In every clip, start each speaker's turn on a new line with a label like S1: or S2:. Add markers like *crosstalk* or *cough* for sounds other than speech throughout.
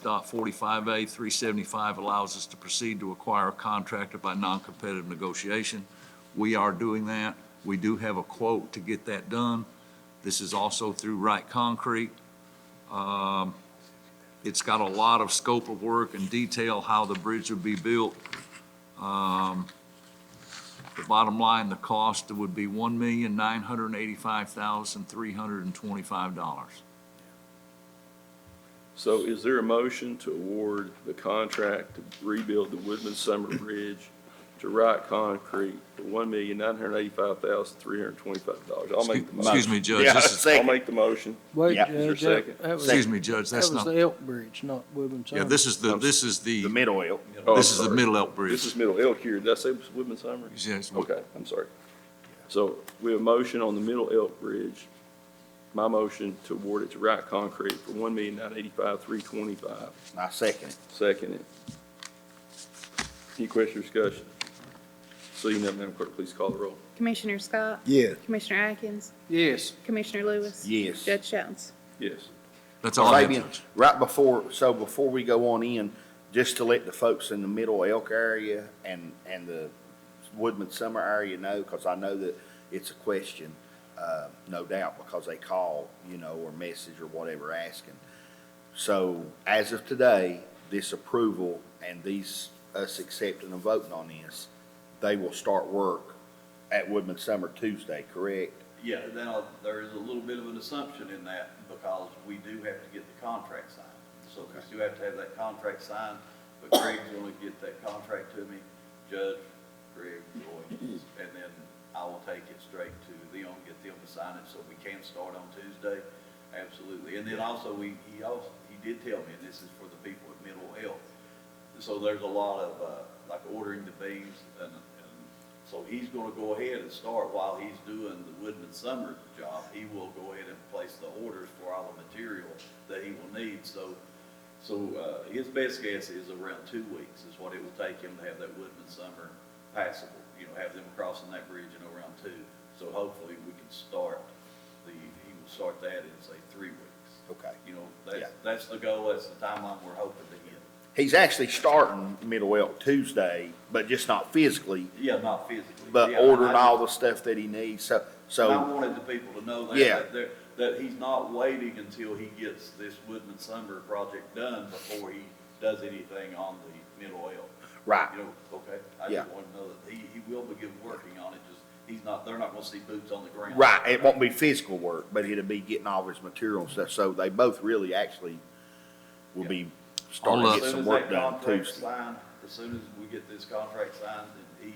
S1: Scott 45A 375 allows us to proceed to acquire a contractor by non-competitive negotiation. We are doing that. We do have a quote to get that done. This is also through Wright Concrete. Um, It's got a lot of scope of work and detail how the bridge would be built. Um, The bottom line, the cost would be $1,985,325.
S2: So is there a motion to award the contract to rebuild the Woodman Summer
S1: *coughs*
S2: Bridge to Wright Concrete for one million nine hundred eighty-five thousand three hundred twenty-five dollars? I'll make the
S1: Excuse
S2: motion.
S1: me, Judge,
S3: Yeah,
S1: this is,
S2: I'll
S3: second.
S2: make the motion.
S4: Wait,
S3: Yeah.
S2: Is there a
S4: Judge, that,
S2: second?
S4: that was,
S1: excuse
S4: that
S1: me, Judge, that's
S4: was
S1: not,
S4: the Elk Bridge, not Woodman
S1: yeah,
S4: Summit.
S1: this is the, this is
S3: The
S1: the,
S3: mid oil.
S2: Oh, I'm
S1: this is the
S2: sorry.
S1: Middle Elk
S2: This
S1: Bridge.
S2: is Middle Elk here. Did I say it was Woodman Summer?
S1: Yes, we-
S2: Okay, I'm sorry. So we have a motion on the Middle Elk Bridge. My motion to award it to Wright Concrete for one million nine eighty-five three twenty-five.
S3: I second it.
S2: Second it. Any question or discussion? Seeing none, Madam Clerk, please call the roll.
S5: Commissioner Scott?
S6: Yes.
S5: Commissioner Atkins?
S4: Yes,
S5: Commissioner Lewis?
S3: Yes.
S5: Judge Jones?
S2: Yes.
S1: That's all I have,
S3: Fabian,
S1: Judge.
S3: right before, so before we go on in, just to let the folks in the Middle Elk area and, and the Woodman Summer area know, because I know that it's a question, uh, no doubt, because they call, you know, or message or whatever asking. So as of today, this approval and these, us accepting and voting on this, they will start work at Woodman Summer Tuesday, correct?
S7: Yeah, now, there is a little bit of an assumption in that because we do have to get the contract signed. So we still have to have that contract signed, but Greg's gonna get that contract to me, Judge, Greg, Roy, and then I will take it straight to them, get them to sign it so we can start on Tuesday. Absolutely. And then also, we, he also, he did tell me, and this is for the people at Middle Health, so there's a lot of, uh, like ordering the beams and, and so he's gonna go ahead and start while he's doing the Woodman Summer job. He will go ahead and place the orders for all the material that he will need. So, so, uh, his best guess is around two weeks is what it will take him to have that Woodman Summer passable. You know, have them crossing that bridge in around two. So hopefully we can start the, he will start that in say three weeks.
S3: Okay.
S7: You know,
S3: Yeah.
S7: that's, that's the goal, that's the timeline we're hoping to get.
S3: He's actually starting Middle Elk Tuesday, but just not physically,
S7: Yeah, not physically.
S3: but
S7: Yeah,
S3: ordering
S7: I-
S3: all the stuff that he needs, so,
S7: And I
S3: so,
S7: wanted the people to know that,
S3: Yeah.
S7: that, they're- that he's not waiting until he gets this Woodman Summer project done before he does anything on the middle oil.
S3: right,
S7: You know, okay, I
S3: Yeah.
S7: just want to know that he, he will begin working on it, just, he's not, they're not gonna see boots on the ground.
S3: right, it won't be physical work, but it'll be getting all his material and stuff, so they both really actually will be starting
S1: Hold
S3: to
S1: up.
S3: get
S7: As soon
S3: some
S7: as
S3: work
S7: that
S3: done
S7: contract's
S3: Tuesday.
S7: signed, as soon as we get this contract signed, then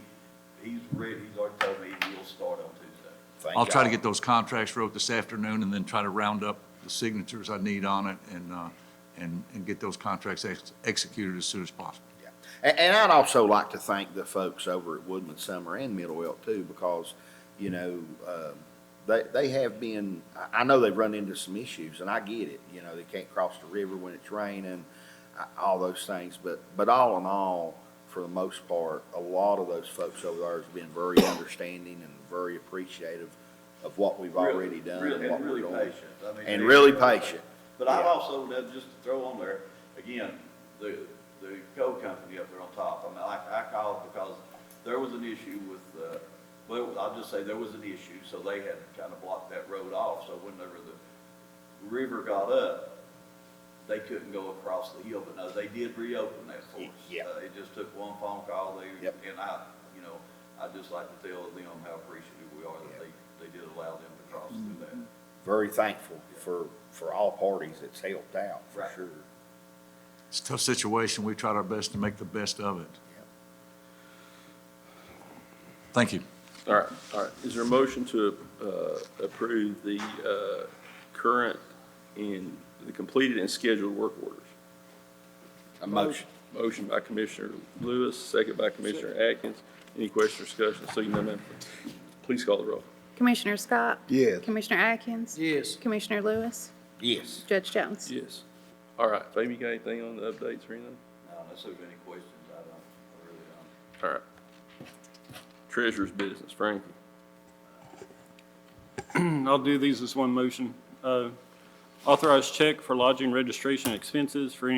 S7: he, he's ready, he's already told me he'll start on Tuesday.
S3: Thank
S1: I'll try to
S3: God.
S1: get those contracts wrote this afternoon and then try to round up the signatures I need on it and, uh, and, and get those contracts ex- executed as soon as possible.
S3: Yeah. And, and I'd also like to thank the folks over at Woodman Summer and Middle Elk too, because, you know, um, they, they have been, I, I know they've run into some issues and I get it, you know, they can't cross the river when it's raining, uh, all those things, but, but all in all, for the most part, a lot of those folks over there has been very understanding and very appreciative of what we've
S7: Really-
S3: already done
S7: really-
S3: and what
S7: and
S3: we're
S7: really
S3: doing.
S7: patient. I mean,
S3: And
S7: they-
S3: really patient.
S7: But I've
S3: Yeah.
S7: also, done- just to throw on there, again, the, the coal company up there on top, I mean, I, I called because there was an issue with, uh, well, I'll just say there was an issue, so they had kind of blocked that road off, so whenever the river got up, they couldn't go across the hill, but no, they did reopen that for us.
S3: Yeah.
S7: Uh, It just took one phone call, they,
S3: Yep.
S7: and I, you know, I'd just like to tell them how appreciative we are that they, they did allow them to cross through that.
S3: Very thankful for, for all parties that's helped out, for
S7: Right.
S3: sure.
S1: It's a tough situation. We tried our best to make the best of it. Thank you.
S2: All right, all right. Is there a motion to uh, approve the uh, current and the completed and scheduled work orders?
S3: A motion.
S2: Motion by Commissioner Lewis, second by Commissioner Atkins. Any question or discussion? Seeing none, Madam Clerk, please call the roll.
S5: Commissioner Scott?
S6: Yes.
S5: Commissioner Atkins?
S4: yes.
S5: Commissioner Lewis?
S3: Yes.
S5: Judge Jones?
S2: Yes. All right, Fabian, you got anything on the updates or anything?
S7: Now, Unless there's any questions, I don't, I really don't.
S2: All right. Treasurer's business, Frankie.
S8: *clears throat* I'll do these as one motion. Uh, Authorized check for lodging registration expenses for any